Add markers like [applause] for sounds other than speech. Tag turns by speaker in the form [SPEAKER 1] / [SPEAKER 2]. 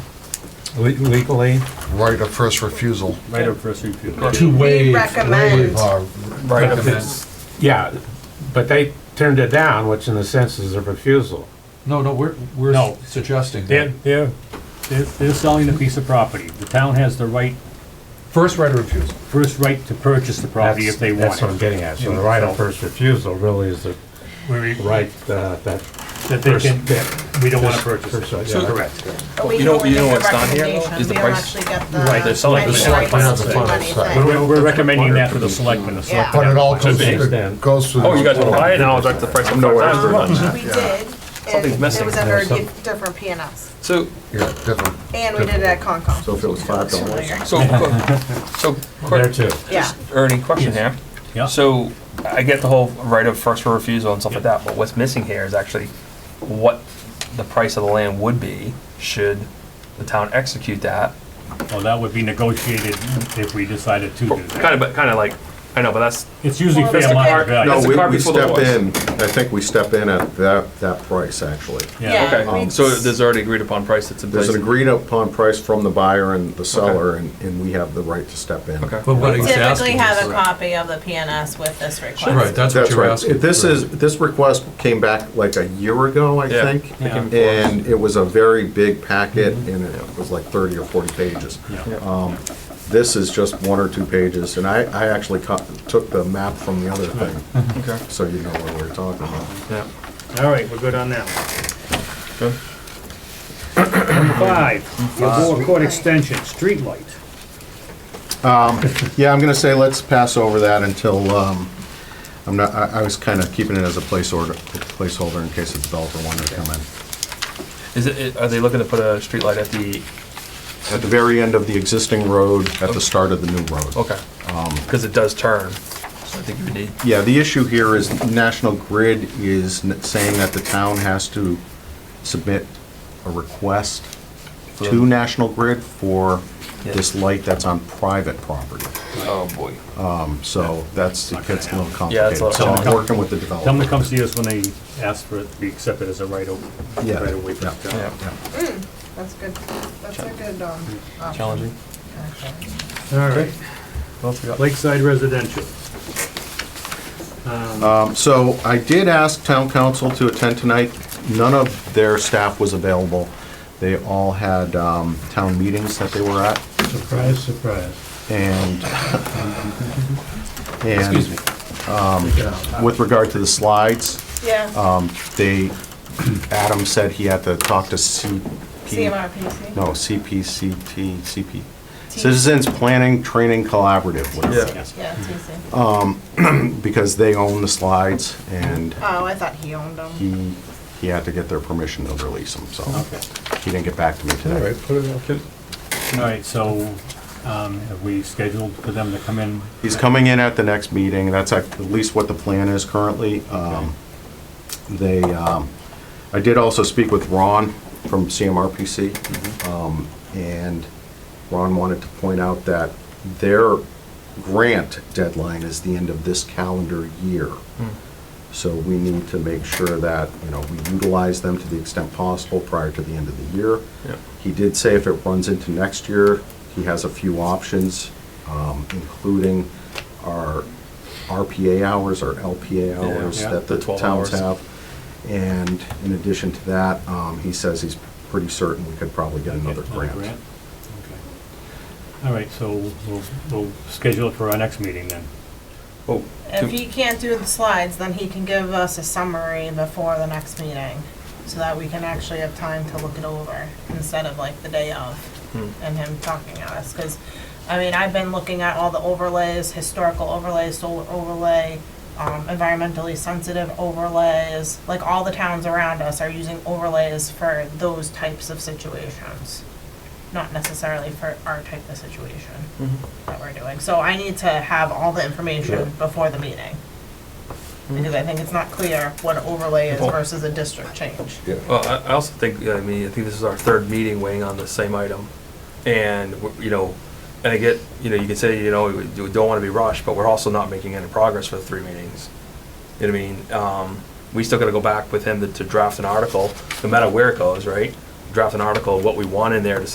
[SPEAKER 1] Le- Legally,
[SPEAKER 2] right of first refusal.
[SPEAKER 3] Right of first refusal.
[SPEAKER 4] To waive.
[SPEAKER 5] recommend.
[SPEAKER 2] Uh,
[SPEAKER 1] right if
[SPEAKER 4] Recommend.
[SPEAKER 1] it's, yeah, but they turned it down, which in a sense is a refusal.
[SPEAKER 4] No, no, we're, we're
[SPEAKER 3] No.
[SPEAKER 4] suggesting
[SPEAKER 3] They're,
[SPEAKER 4] that.
[SPEAKER 3] they're, they're they're selling a piece of property. The town has the right,
[SPEAKER 4] First right of refusal.
[SPEAKER 3] first right to purchase the property
[SPEAKER 1] That's,
[SPEAKER 3] if they
[SPEAKER 1] that's
[SPEAKER 3] want
[SPEAKER 1] what I'm
[SPEAKER 3] it.
[SPEAKER 1] getting at. So the right of first refusal really is the
[SPEAKER 3] We- we-
[SPEAKER 1] right, uh, that.
[SPEAKER 3] That they
[SPEAKER 1] first
[SPEAKER 3] can,
[SPEAKER 1] bit.
[SPEAKER 3] we don't want to
[SPEAKER 1] First-
[SPEAKER 3] purchase
[SPEAKER 1] first,
[SPEAKER 3] it.
[SPEAKER 1] uh, yeah.
[SPEAKER 3] Correct.
[SPEAKER 5] You
[SPEAKER 6] know- you know what's not here, though, is the price.
[SPEAKER 3] Right,
[SPEAKER 5] They're
[SPEAKER 6] they're selling
[SPEAKER 5] the
[SPEAKER 6] the
[SPEAKER 5] select
[SPEAKER 6] select
[SPEAKER 5] plans.
[SPEAKER 2] plan. Right.
[SPEAKER 3] We're- We're, we're recommending that for the selectmen, the
[SPEAKER 5] Yeah.
[SPEAKER 2] But
[SPEAKER 3] selectmen.
[SPEAKER 2] it all
[SPEAKER 3] have-
[SPEAKER 2] comes,
[SPEAKER 1] Understand.
[SPEAKER 2] it goes through.
[SPEAKER 6] Oh, you guys want to buy it now? I'll the price. I'm nowhere.
[SPEAKER 5] We did, and
[SPEAKER 6] Something's
[SPEAKER 5] it
[SPEAKER 6] missing.
[SPEAKER 5] was under a
[SPEAKER 1] There's some-
[SPEAKER 5] di- different P and Ls,
[SPEAKER 6] So,
[SPEAKER 2] Yeah, different.
[SPEAKER 5] and we did it at Concom.
[SPEAKER 7] So if it was five dollars,
[SPEAKER 6] so, so,
[SPEAKER 1] There
[SPEAKER 6] quick,
[SPEAKER 1] too.
[SPEAKER 5] Yeah,
[SPEAKER 6] Ernie, question here.
[SPEAKER 3] Yeah.
[SPEAKER 6] So, I get the whole right of first refusal and stuff like that, but what's missing here is actually what the price of the land would be should the town execute that.
[SPEAKER 3] Well, that would be negotiated if we decided to do
[SPEAKER 6] Kind
[SPEAKER 3] that.
[SPEAKER 6] of, but kind of like, I know, but that's,
[SPEAKER 3] It's usually
[SPEAKER 5] Well,
[SPEAKER 3] fair
[SPEAKER 5] that's
[SPEAKER 3] market
[SPEAKER 5] okay.
[SPEAKER 3] value.
[SPEAKER 7] No,
[SPEAKER 6] That's the
[SPEAKER 7] we,
[SPEAKER 6] cart
[SPEAKER 7] we
[SPEAKER 6] before the
[SPEAKER 7] step
[SPEAKER 6] horse.
[SPEAKER 7] in, I think we step in at that, that price, actually.
[SPEAKER 3] Yeah.
[SPEAKER 5] yeah.
[SPEAKER 6] okay,
[SPEAKER 5] we-
[SPEAKER 6] so there's already agreed upon price that's in place.
[SPEAKER 7] There's an agreed upon price from the buyer and the seller, and, and we have the right to step in.
[SPEAKER 6] Okay.
[SPEAKER 4] But what
[SPEAKER 8] We
[SPEAKER 4] he's
[SPEAKER 8] typically
[SPEAKER 4] asking
[SPEAKER 8] have a
[SPEAKER 4] is.
[SPEAKER 8] copy of the PNS with this
[SPEAKER 4] Right,
[SPEAKER 8] request.
[SPEAKER 4] that's what
[SPEAKER 7] That's
[SPEAKER 4] you're
[SPEAKER 7] right.
[SPEAKER 4] asking.
[SPEAKER 7] This is, this request came back like a year ago, I
[SPEAKER 6] Yeah.
[SPEAKER 7] think.
[SPEAKER 3] Yeah.
[SPEAKER 7] And it was a very big packet,
[SPEAKER 6] Mm-hmm.
[SPEAKER 7] and it was like thirty or forty pages.
[SPEAKER 3] Yeah.
[SPEAKER 7] Um, This is just one or two pages, and I, I actually co- took the map from the other thing,
[SPEAKER 6] Mm-hmm. Okay.
[SPEAKER 7] so you know what we're talking about.
[SPEAKER 6] Yeah.
[SPEAKER 3] All right, we're good on that. Number five, Gilboa Court Extension, streetlight.
[SPEAKER 7] Yeah, I'm gonna say let's pass over that until, um, I'm not, I, I was kinda keeping it as a place order, placeholder in case the developer wanted to come in.
[SPEAKER 6] Is it, are they looking to put a streetlight at the,
[SPEAKER 7] At the very end of the existing road, at the start of the new road.
[SPEAKER 6] okay, because it does turn, so I think you would need.
[SPEAKER 7] Yeah, the issue here is National Grid is n- saying that the town has to submit a request to National Grid for this light that's on private property.
[SPEAKER 6] Oh, boy.
[SPEAKER 7] So that's, it gets a little
[SPEAKER 6] Yeah, it's a
[SPEAKER 7] complicated.
[SPEAKER 6] little
[SPEAKER 7] So I'm
[SPEAKER 6] complicated.
[SPEAKER 7] working with the
[SPEAKER 3] Tell them
[SPEAKER 7] developer.
[SPEAKER 3] to come see us when they ask for it to be accepted as a right of,
[SPEAKER 7] Yeah,
[SPEAKER 3] right of way.
[SPEAKER 7] yeah.
[SPEAKER 6] Yeah,
[SPEAKER 5] That's good, that's a good, um, option.
[SPEAKER 6] challenging.
[SPEAKER 5] Okay.
[SPEAKER 3] All right,
[SPEAKER 6] What else we got?
[SPEAKER 3] Lakeside Residential.
[SPEAKER 7] Um, So I did ask town council to attend tonight. None of their staff was available. They all had um, town meetings that they were at.
[SPEAKER 1] Surprise, surprise. [laughs]
[SPEAKER 7] And, and um, with regard to the slides,
[SPEAKER 5] Yeah,
[SPEAKER 7] they, Adam said he had to talk to CP.
[SPEAKER 5] CMRPC.
[SPEAKER 7] No, CPCT, CP, Citizens Planning Training Collaborative, whatever it
[SPEAKER 6] Yeah.
[SPEAKER 7] is,
[SPEAKER 8] Yeah, TC.
[SPEAKER 7] because they own the slides and
[SPEAKER 8] Uh,
[SPEAKER 5] Oh, I thought he owned them.
[SPEAKER 7] he, he had to get their permission to release them, so he didn't get back to me today.
[SPEAKER 3] All right, so, um, have we scheduled for them to come in?
[SPEAKER 7] He's coming in at the next meeting, that's at least what the plan is currently. Um, They, um, I did also speak with Ron from CMRPC, um, and Ron wanted to point out that their grant deadline is the end of this calendar year.
[SPEAKER 6] Hmm.
[SPEAKER 7] So we need to make sure that, you know, we utilize them to the extent possible prior to the end of the year.
[SPEAKER 6] Yeah.
[SPEAKER 7] He did say if it runs into next year, he has a few options, um, including our RPA hours, our LPA hours
[SPEAKER 3] Yeah.
[SPEAKER 7] that the
[SPEAKER 6] The 12
[SPEAKER 7] towns
[SPEAKER 6] hours.
[SPEAKER 7] have. And in addition to that, um, he says he's pretty certain we could probably get another grant.
[SPEAKER 3] Okay. All right, so we'll, we'll schedule it for our next meeting then.
[SPEAKER 6] Oh,
[SPEAKER 8] If he can't do the slides, then he can give us a summary before the next meeting, so that we can actually have time to look it over, instead of like the day of, and him talking at us, because, I mean, I've been looking at all the overlays, historical overlays, solar overlay, um, environmentally sensitive overlays, like all the towns around us are using overlays for those types of situations, not necessarily for our type of situation that we're doing. So I need to have all the information before the meeting. Because I think it's not clear what an overlay is
[SPEAKER 6] Well-
[SPEAKER 8] versus a district change.
[SPEAKER 6] Well, I, I also think, I mean, I think this is our third meeting weighing on the same item. And, we're- you know, and I get, you know, you could say, you know, we we don't want to be rushed, but we're also not making any progress for the three meetings. You know what I mean? Um, we still got to go back with him to- to draft an article, no matter where it goes, right? Draft an article, what we want in there to